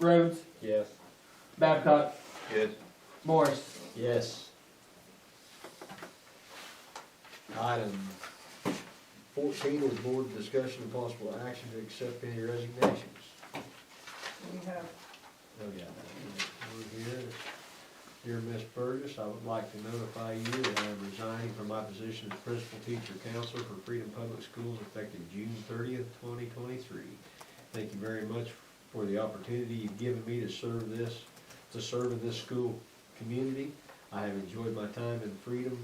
Rhodes, Yes. Babcock, Yes. Morris. Yes. Item fourteen is board discussion of possible action to accept any resignations. We have, Oh, yeah. We're here. Dear Miss Burgess, I would like to notify you that I am resigning from my position as principal teacher counselor for Freedom Public Schools effective June thirtieth, twenty twenty-three. Thank you very much for the opportunity you've given me to serve this, to serve in this school community. I have enjoyed my time in Freedom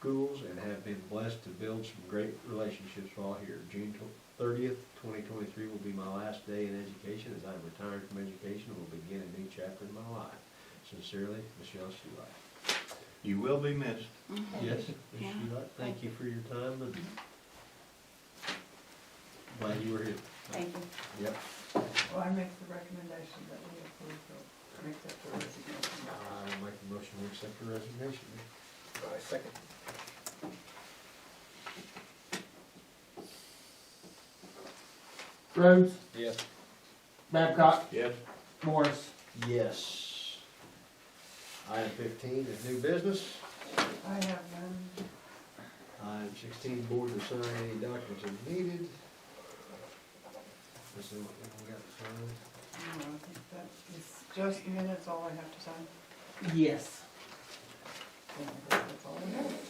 Schools and have been blessed to build some great relationships while here. June thirtieth, twenty twenty-three will be my last day in education as I'm retired from education and will begin a new chapter in my life. Sincerely, Michelle Shulight. You will be missed. Mm-hmm. Yes, Ms. Yeah. Shulight, thank you Mm-hmm. for your time and glad you were here. Thank you. Yep. well, I make the recommendation that we approve the, make that the resignation. I will make a motion to accept your resignation. second. Rhodes, Yes. Babcock, Yes. Morris. Yes. Item fifteen is new business. I have none. Item sixteen, board to sign any documents as needed. This is what we got to sign. No, I think that is just minutes, all I have to sign. Yes. That's all I have.